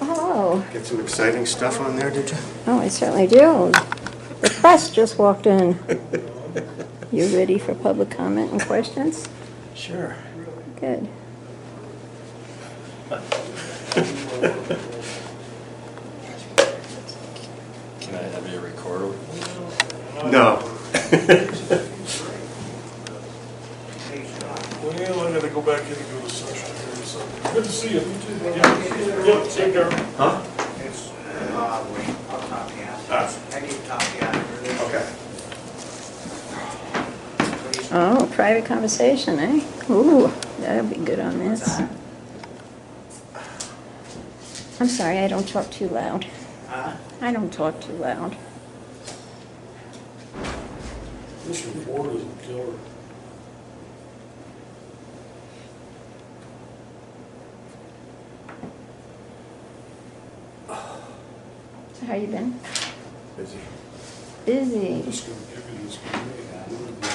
Oh, Get some exciting stuff on there, did you? oh, I certainly do. The press just walked in. You ready for public comment and questions? Sure. Good. Can I have your recorder? No. Well, I gotta go back in and go to session here, so, good to see you. Yep, take care. Huh? It's, uh, wait, I'll copy it. I need to copy it. Okay. Please. Oh, private conversation, eh? Ooh, that'll be good on this. I'm sorry, I don't talk too loud. Huh? I don't talk too loud. This report is a killer. So How you been? Busy. Busy. Just gonna give you this. community.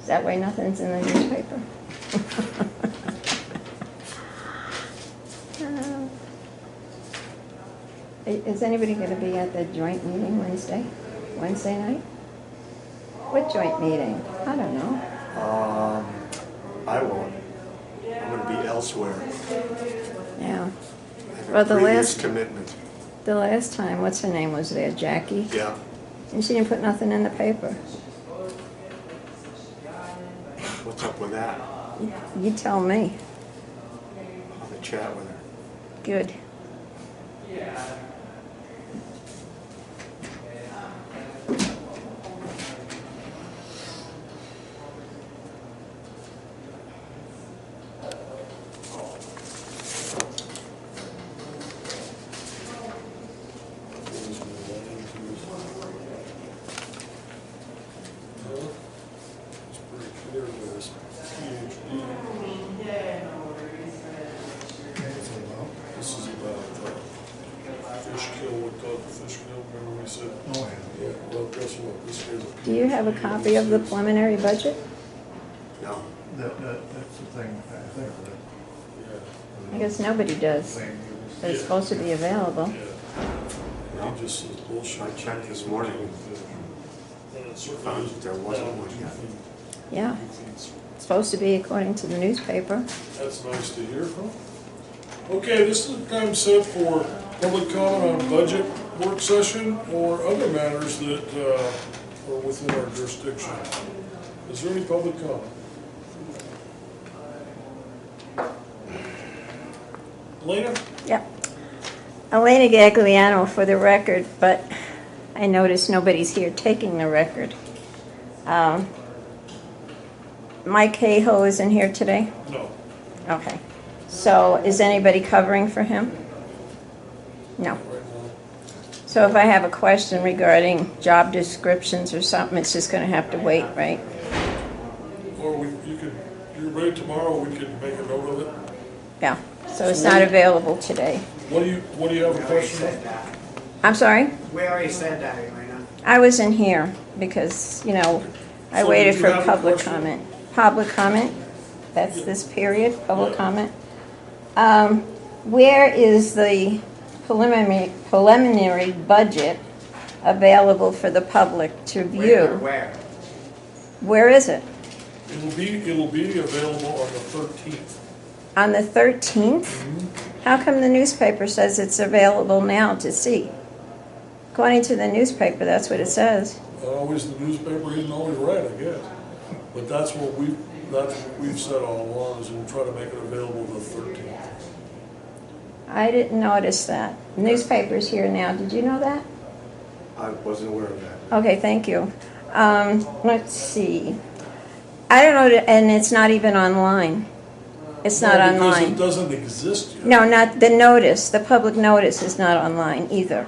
Is that why nothing's in the newspaper? Um, i- Is anybody gonna be at the joint meeting Wednesday, Wednesday night? What joint meeting? I don't know. Um, I won't. I'm gonna be elsewhere. Yeah, I have a Well, the previous last- Commitment, the last time, what's her name was there, Jackie? yeah. And she didn't put nothing in the paper. What's up with that? You- You tell me. I'll have a chat with her. Good. It's pretty clear there's PhD. This is about uh, fish kill, what dog fish kill, remember we said? Oh, yeah. Well, guess what, this guy's a PhD. Do you have a copy of the preliminary budget? No, That, that, that's the thing, I think, Yeah, I guess nobody the does. thing But it's supposed to be available. yeah. He just says bullshit. I checked this morning. And it certainly Found is there wasn't down one two yet. feet. Yeah, Two feet's it's supposed to be according to the newspaper. That's nice to hear from. Okay, this is the time set for public comment on budget work session or other matters that uh, are within our jurisdiction. Is there any public comment? Elena? Yep. Elena Gagliano for the record, but I notice nobody's here taking the record. Um, Mike Cahill isn't here today? No. Okay. So is anybody covering for him? No. Right now. So if I have a question regarding job descriptions or something, it's just gonna have to wait, right? Or we, you could, you're ready tomorrow, we could make a note of it. Yeah, so it's not available today. What do you, what do you have We a already question on? said that. I'm sorry? We already said that, Elena. I was in here because, you know, I So waited did you for have a public question? comment. Public comment, that's this period, public Yeah. comment. Um, Where is the preliminary, preliminary budget available for the public to Where, view? Where? Where is it? It'll be, it'll be available on the thirteenth. On the 13th? Mm-hmm. How come the newspaper says it's available now to see? According to the newspaper, that's what it says. Uh, Always the newspaper isn't always right, I guess. But that's what we, that's what we've said all along, is we'll try to make it available the thirteenth. I didn't notice that. Newspaper's here now, did you know that? I wasn't aware of that. Okay, thank you. Um, let's see. I don't know, and it's not even online. It's not Because it online. doesn't exist yet. No, not, the notice, the public notice is not online either.